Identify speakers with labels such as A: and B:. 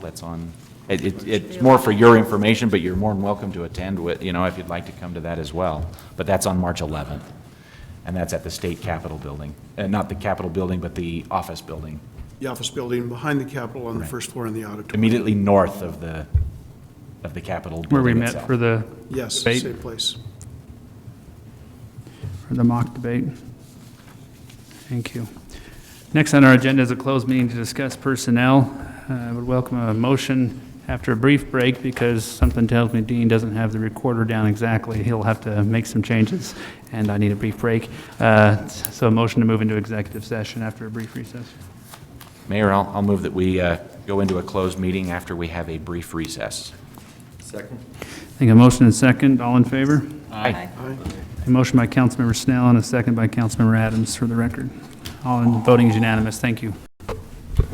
A: that's on, it, it- it's more for your information, but you're more than welcome to attend with, you know, if you'd like to come to that as well. But that's on March 11th, and that's at the State Capitol Building, Uh not the Capitol Building, but the office building,
B: the office building behind the Capitol on the first floor in the auditorium.
A: immediately north of the, of the Capitol
C: Where we
A: building
C: met
A: itself.
C: for the,
B: Yes,
C: Debate.
B: same place.
C: for the mock debate. Thank you. Next on our agenda is a closed meeting to discuss personnel. Uh, I would welcome a motion after a brief break because something tells me Dean doesn't have the recorder down exactly. He'll have to make some changes, and I need a brief break. Uh, So a motion to move into executive session after a brief recess.
A: Mayor, I'll, I'll move that we uh, go into a closed meeting after we have a brief recess.
D: Second?
C: I think a motion and second, all in favor?
A: Aye.
B: Aye.
C: A motion by Councilmember Snell and a second by Councilmember Adams for the record. All in, voting is unanimous, thank you.